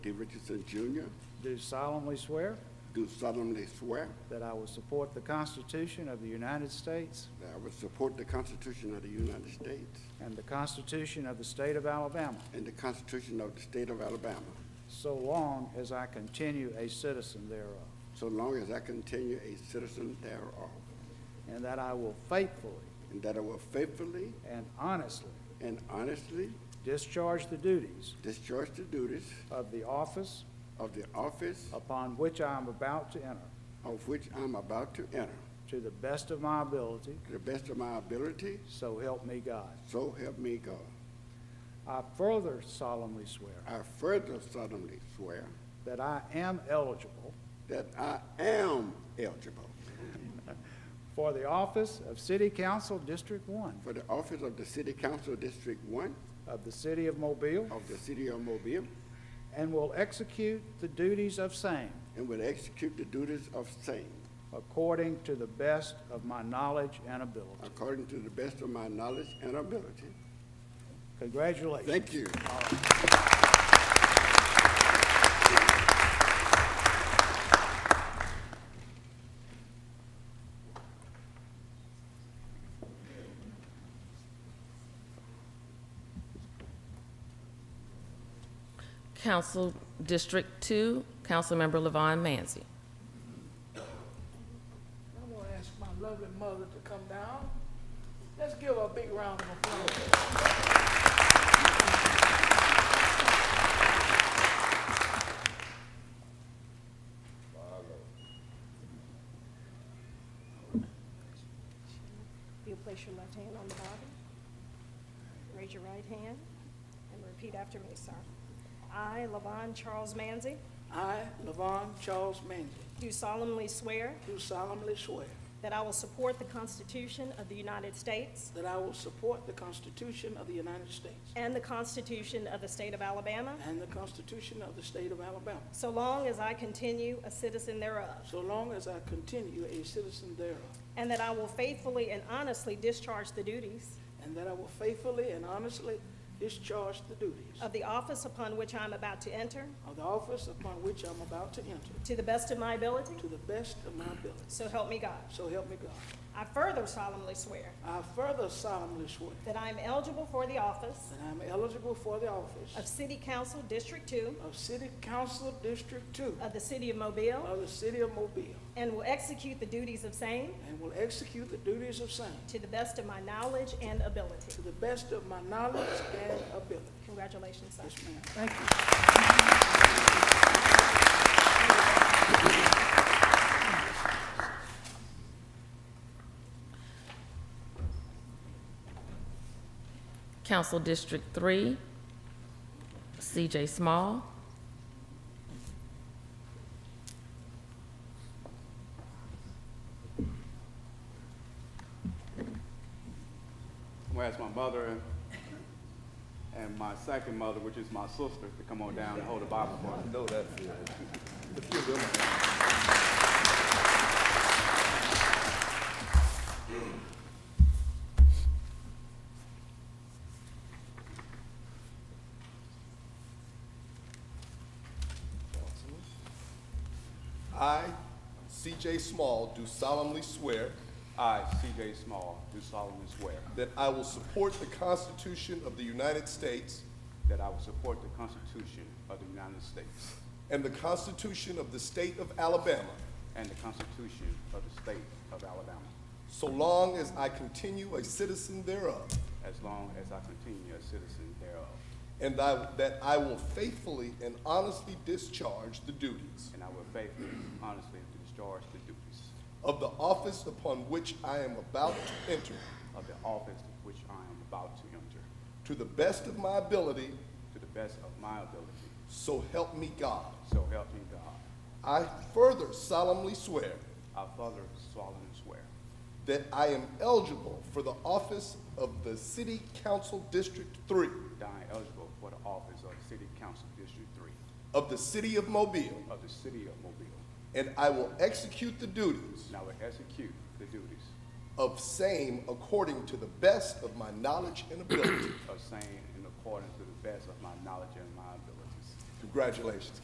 D. Richardson Jr., do solemnly swear do solemnly swear that I will support the Constitution of the United States that I will support the Constitution of the United States and the Constitution of the State of Alabama, and the Constitution of the State of Alabama, so long as I continue a citizen thereof, so long as I continue a citizen thereof, and that I will faithfully and that I will faithfully and honestly and honestly discharge the duties discharge the duties of the office of the office upon which I am about to enter, of which I'm about to enter, to the best of my ability, to the best of my ability, so help me God. so help me God. I further solemnly swear I further solemnly swear that I am eligible that I am eligible for the office of City Council District One for the office of the City Council District One of the City of Mobile of the City of Mobile and will execute the duties of same and will execute the duties of same according to the best of my knowledge and ability. according to the best of my knowledge and ability. Congratulations. Thank you. Council District Two, Councilmember Levon Manzi. I'm gonna ask my lovely mother to come down. Let's give her a big round of applause. You'll place your left hand on the Bible. Raise your right hand and repeat after me, sir. I, Levon Charles Manzi, I, Levon Charles Manzi, do solemnly swear do solemnly swear that I will support the Constitution of the United States that I will support the Constitution of the United States and the Constitution of the State of Alabama, and the Constitution of the State of Alabama, so long as I continue a citizen thereof, so long as I continue a citizen thereof, and that I will faithfully and honestly discharge the duties and that I will faithfully and honestly discharge the duties of the office upon which I am about to enter of the office upon which I'm about to enter, to the best of my ability, to the best of my ability. so help me God. So help me God. I further solemnly swear I further solemnly swear that I am eligible for the office that I am eligible for the office of City Council District Two of City Council District Two of the City of Mobile of the City of Mobile and will execute the duties of same and will execute the duties of same to the best of my knowledge and ability. to the best of my knowledge and ability. Congratulations, sir. Yes, ma'am. Council District Three, CJ Small. I'm gonna ask my mother and, and my second mother, which is my sister, to come on down and hold the Bible for us. No, that's it. I, C.J. Small, do solemnly swear I, C.J. Small, do solemnly swear that I will support the Constitution of the United States that I will support the Constitution of the United States and the Constitution of the State of Alabama and the Constitution of the State of Alabama, so long as I continue a citizen thereof, as long as I continue a citizen thereof, and I- that I will faithfully and honestly discharge the duties and I will faithfully and honestly discharge the duties of the office upon which I am about to enter of the office which I am about to enter, to the best of my ability, to the best of my ability, so help me God. so help me God. I further solemnly swear I further solemnly swear That I am eligible for the office of the City Council District Three that I am eligible for the office of City Council District Three of the City of Mobile, of the City of Mobile, and I will execute the duties and I will execute the duties of same according to the best of my knowledge and ability. of same in accordance to the best of my knowledge and my abilities. Congratulations.